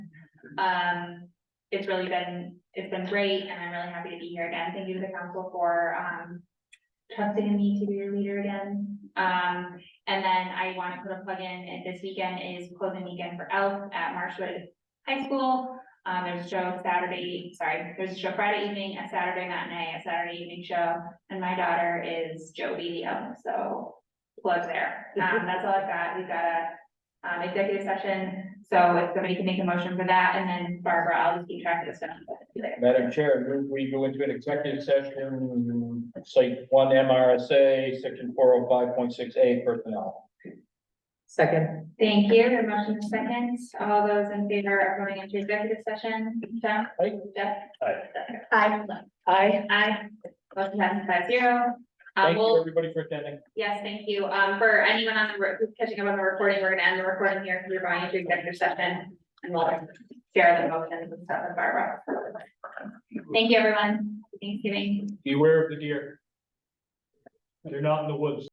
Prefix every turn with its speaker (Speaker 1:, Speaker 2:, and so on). Speaker 1: Um, it's really been, it's been great and I'm really happy to be here again. Thank you to the council for, um, trusting in me to be your leader again. Um, and then I want to put a plug in, and this weekend is closing weekend for Elf at Marshwood High School. Um, there's a show Saturday, sorry, there's a show Friday evening, a Saturday matinee, a Saturday evening show, and my daughter is Jody, the elf, so plug there. Um, that's all I've got. We've got a um, executive session, so if somebody can make a motion for that, and then Barbara, I'll just keep track of this stuff.
Speaker 2: Madam Chair, move we go into an executive session, site one MRSA, section four oh five point six A personnel.
Speaker 3: Second,
Speaker 1: Thank you. The motion is second. All those in favor of going into executive session, Jeff?
Speaker 2: Aye.
Speaker 1: Jeff?
Speaker 2: Aye.
Speaker 1: Aye.
Speaker 3: I,
Speaker 1: Aye. Motion passes five zero. Uh,
Speaker 2: Thank you,
Speaker 1: well,
Speaker 2: everybody, for attending.
Speaker 1: yes, thank you. Um, for anyone on the, re- who's catching up on the recording, we're gonna end the recording here, because we're going into executive session. And we'll share the motions and stuff with Barbara. Thank you, everyone. Thanksgiving.
Speaker 2: Beware of the deer. They're not in the woods.